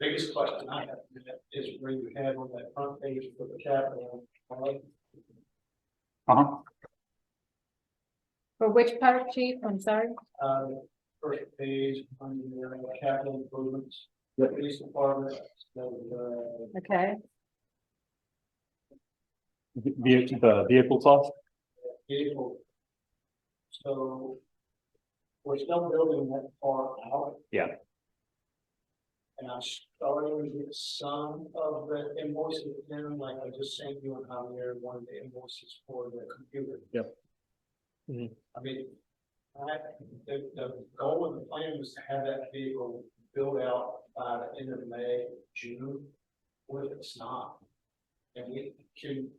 Biggest question I have is where you had on that front page for the capital, I like Uh-huh. For which part, chief? I'm sorry. uh, first page on the uh, capital improvements. The police department, so, Okay, The, the vehicle cost? uh, vehicle. So. We're still building that far out. Yeah. And I'm starting to get some of the invoices in, like I just sent you and Javier, one of the invoices for the computer. Yep. Mhm. I mean, I, the, the goal and the plan was to have that vehicle built out by the end of May, June. What if it's not? And we can,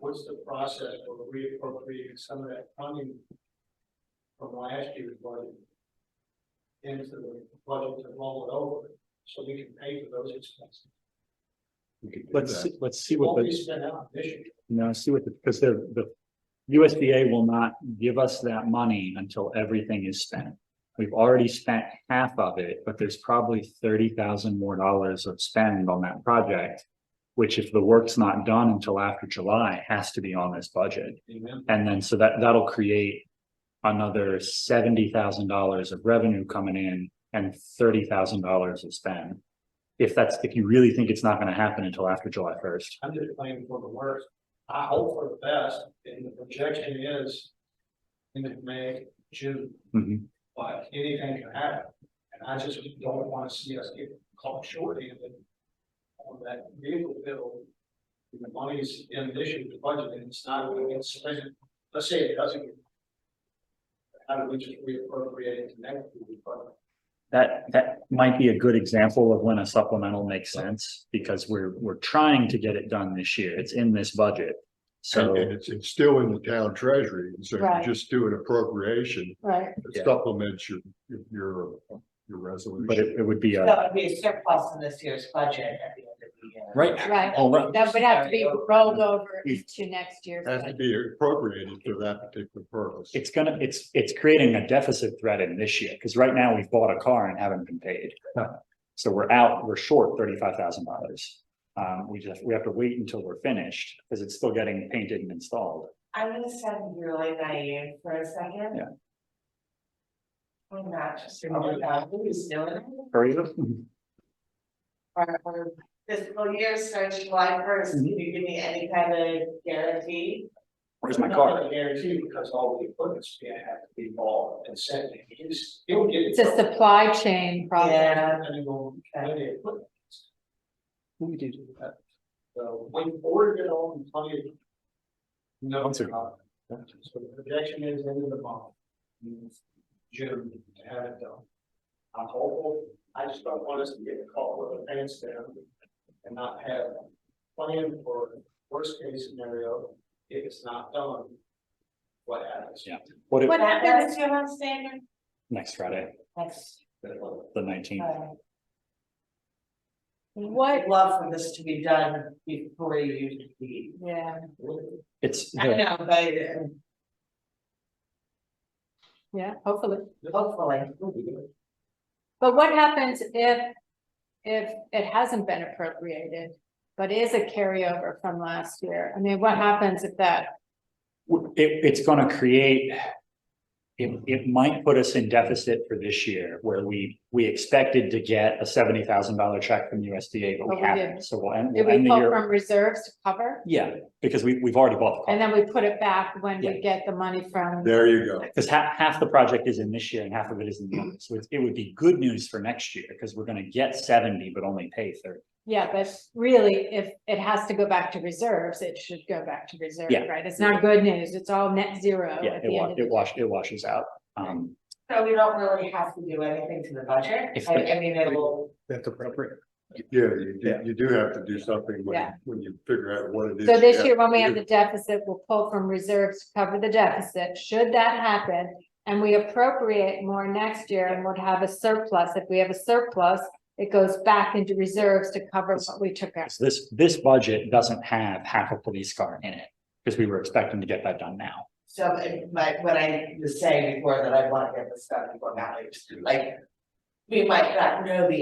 what's the process for reappropriating some of that funding from last year's budget into the budget to roll it over, so we can pay for those expenses? Let's, see- let's see what What we the, spent out this year, no, see what the, because the, the USDA will not give us that money until everything is spent. We've already spent half of it, but there's probably thirty thousand more dollars of spend on that project. Which if the work's not done until after July, has to be on this budget. amen, And then so that that'll create another seventy thousand dollars of revenue coming in and thirty thousand dollars of spend. If that's, if you really think it's not gonna happen until after July first. I'm just planning for the worst, I hope for the best, and the projection is end of May, June. But anything can happen, and I just don't wanna see us get caught shorthanded on that vehicle bill. And The money's in addition to budget, and it's not going to get spent, let's say it doesn't. get- How do we just reappropriate it to next year's budget? That that might be a good example of when a supplemental makes sense because we're we're trying to get it done this year. It's in this budget. And So and it's, it's still in the town treasury, and so Right. you just do an appropriation right. Yeah. that supplements your, your, but your resolution. it it would be So a, it'd be a surplus in this year's budget at the end of the year. right? Right. All right. That would have to be rolled over to next year. Has to be appropriated for that particular purpose. It's gonna, it's, it's creating a deficit threat in this year, because right now we've bought a car and haven't been paid. So we're out, we're short thirty-five thousand dollars. Um, we just, we have to wait until we're finished, because it's still getting painted and installed. I'm gonna sound really naive for a second. Yeah. I'm not just remember that, who's doing it? Hurry up. Our, our fiscal year starts July first, can Mm-hmm. you give me any kind of guarantee? Where's my Not car? gonna Guarantee, because all the equipment's gonna have to be bought and sent, and it's, it'll get. It's a supply chain problem. Yeah. And on when the equipment. is. We do do that. So we ordered it all in plenty of. No. One second. uh, So the projection is end of the month. June to have it done. I'm hopeful, I just don't want us to get caught with our pants down and not have a plan for worst case scenario, if it's not done. What happens? Yeah. What, if- What That, happens, that's your last statement? next Friday, That's, the nineteenth, uh, what, I'd love for this to be done before you leave. yeah, it's, I the- know, but uh, yeah, hopefully. hopefully. But what happens if, if it hasn't been appropriated, but is a carryover from last year? I mean, what happens if that, it, it's gonna create. It, it might put us in deficit for this year, where we, we expected to get a seventy thousand dollar check from USDA, but But we Oh, we haven't, didn't. so we'll end, do we'll we end the pull year. from reserves to cover? Yeah, because we, we've already bought the And car, then we put it back when Yeah. we get the money from, There you go. because half, half the project is in this year and half of it is in the other, so it's- it would be good news for next year, because we're gonna get seventy, but only pay thirty. yeah, but really, if it has to go back to reserves, it should go back to reserve, Yeah. right? It's not good news, it's all net zero Yeah, Oh, at it the wa- end of it the wash, it washes out, um, So we don't really have to do anything to the budget, If I, the- I mean, it will, That's appropriate. Yeah, you, do- Yeah. you do have to do something Yeah. when, when you figure out what it is. So this you year, when we to have do. the deficit, we'll pull from reserves to cover the deficit, should that happen. And we appropriate more next year and would have a surplus, if we have a surplus, it goes back into reserves to cover what we took out. so this, this budget doesn't have half a police car in it, because we were expecting to get that done now. so, it- but what I was saying before, that I wanna get this done before now, like. We might not know the